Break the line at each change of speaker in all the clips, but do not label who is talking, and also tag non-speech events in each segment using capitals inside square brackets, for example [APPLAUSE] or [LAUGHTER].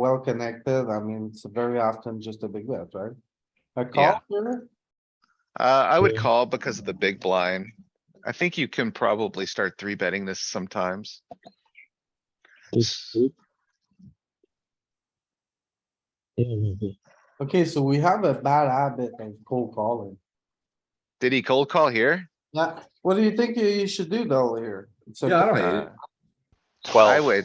well connected, I mean, it's very often just a big bet, right? A
Yeah.
call here,
Uh, I would
Yeah.
call because of the big blind. I think you can probably start three betting this sometimes.
This group. Yeah, maybe.
okay, so we have a bad habit of cold calling.
Did he cold call here?
Yeah, what do you think you- you should do though here? It's a-
Yeah, I don't hate
Uh,
it.
I
Twelve,
would,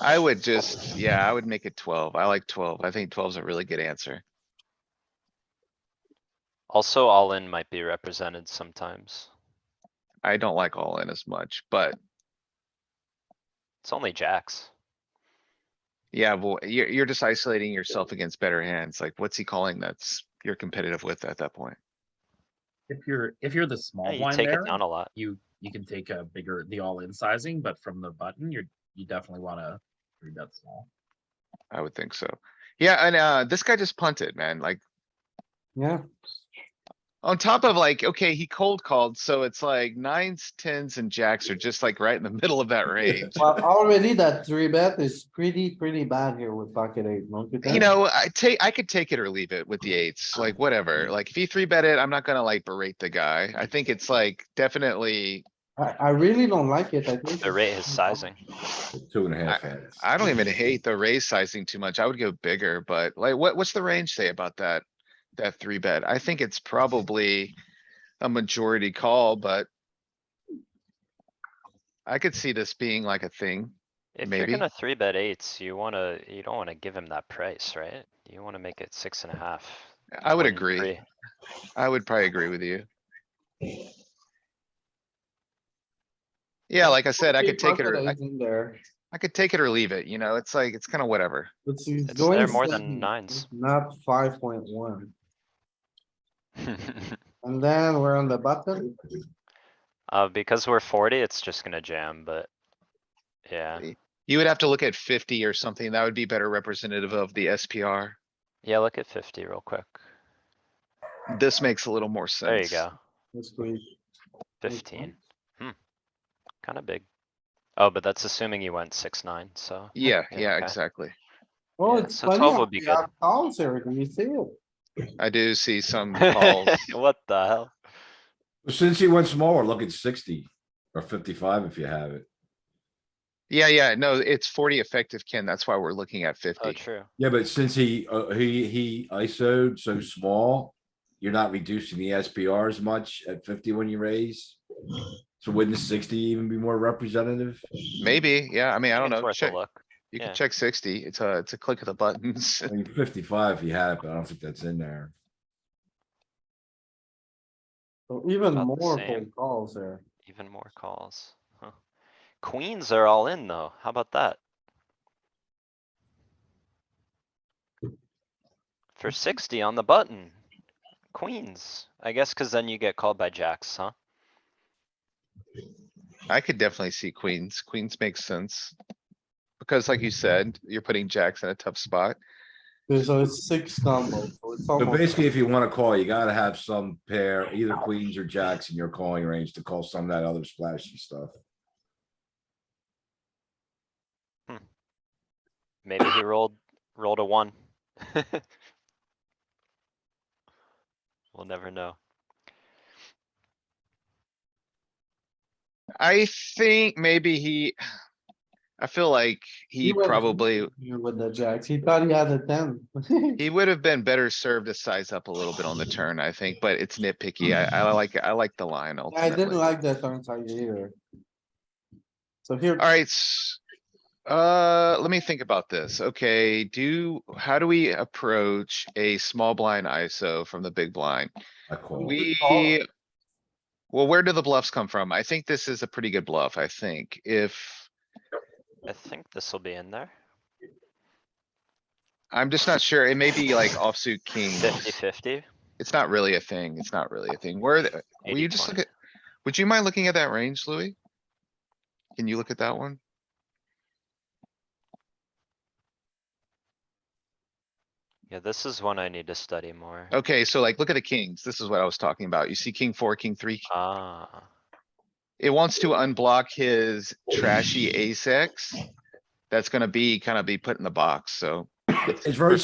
I would just, yeah, I would make it twelve. I like twelve. I think 12 is a really good answer.
also all in might be represented sometimes.
I don't like all in as much, but
It's only jacks.
yeah, well, you're, you're just isolating yourself against better hands. Like, what's he calling that's you're competitive with at that point?
If you're, if you're the
Yeah,
small
you
blind
take
there,
it down a lot.
you, you can take a bigger, the all-in sizing, but from the button, you're, you definitely wanna three bet small.
I would think so. Yeah, and, uh, this guy just punted, man. Like,
Yeah,
On top of like, okay, he cold called, so it's like nines, tens and jacks are just like right in the [LAUGHS] middle of that range.
well, already that three bet is pretty, pretty bad here with pocket eight, don't you think?
You know, I take, I could take it or leave it with the eights, like whatever. Like if he three bet it, I'm not gonna like berate the guy. I think it's like definitely,
I, I really don't like it, I think.
The rate is
[LAUGHS]
sizing.
Two and a half hands.
I don't even hate the raise sizing too much. I would go bigger, but like what, what's the range say about that? That three bet? I think it's probably a majority call, but I could see this being like a thing.
If you're
Maybe.
gonna three bet eights, you wanna, you don't wanna give him that price, right? You wanna make it six and a half.
I would
one in
agree.
three.
I would probably agree with you. Yeah, like I said, I could take it or, I,
Pocket eight in There.
I could take it or leave it, you know, it's like, it's kinda whatever.
It's, he's
It's there
going
more than
seven,
nines.
Not five point one, and then we're on the button,
[LAUGHS] Uh, because we're forty, it's just gonna jam, but. Yeah,
You would have to look at fifty or something, that would be better representative of the SPR.
yeah, look at fifty real quick.
This makes a little more
There you
sense.
go,
let's squeeze.
fifteen. Hmm. Kinda big. Oh, but that's assuming you went six, nine, so.
Yeah,
[LAUGHS] Yeah,
yeah,
okay.
exactly.
Oh,
Yeah,
it's
so
funny
12
how
would be
we
good.
have Calls here, do you see it?
I do see
[LAUGHS]
some calls.
What the hell?
Since he went smaller, look at sixty or fifty-five if you have it.
Yeah, yeah, no, it's forty effective, Ken, that's why we're looking at
Oh,
fifty.
true.
Yeah, but since he, uh, he, he ISO'd so small, you're not reducing the SPR as much at fifty when you raise. So wouldn't the sixty even be more representative?
Maybe, yeah, I mean, I don't
think it's
know,
worth a
check,
Look,
you can
yeah.
check sixty, it's a, it's a click of the buttons.
I mean, fifty-five if you have, it, but I don't think that's in there.
So Even
About the
more
same.
cold calls there.
even more calls, huh? Queens are all in though, how about that? For sixty on the button, queens, I guess cuz then you get called by jacks, huh?
I could definitely see queens. Queens makes sense. Because like you said, you're putting jacks in a tough spot.
There's a six combo, so it's
So
almost.
basically, if you wanna call, you gotta have some pair, either queens or jacks in your calling range to call some of that other splashy stuff.
Maybe he rolled, rolled a one. [LAUGHS] We'll never know.
I think maybe he. I feel like he
went
probably,
Here with the jacks, he thought he had a ten. [LAUGHS]
he would have been better served to size up a little bit on the turn, I think, but it's nitpicky. I, I like, I like the line
I didn't
ultimately.
like that turn side either. So here,
Alright. Uh, let me think about this. Okay, do, how do we approach a small blind ISO from the big blind?
I call.
We,
call.
well, where do the bluffs come from? I think this is a pretty good bluff, I think. If,
I think this will be in there,
I'm just not sure, it may be like offsuit kings.
fifty fifty.
It's not really a thing. It's not really a thing. Where, the- will you just look at, would you mind looking at that range, Louis? Can you look at that one?
Yeah, this is one I need to study more.
Okay, so like, look at the kings. This is what I was talking about. You see king four, king three.
Ah,
It wants to unblock his trashy ace X. That's gonna be kind of be put in the box, so
It's very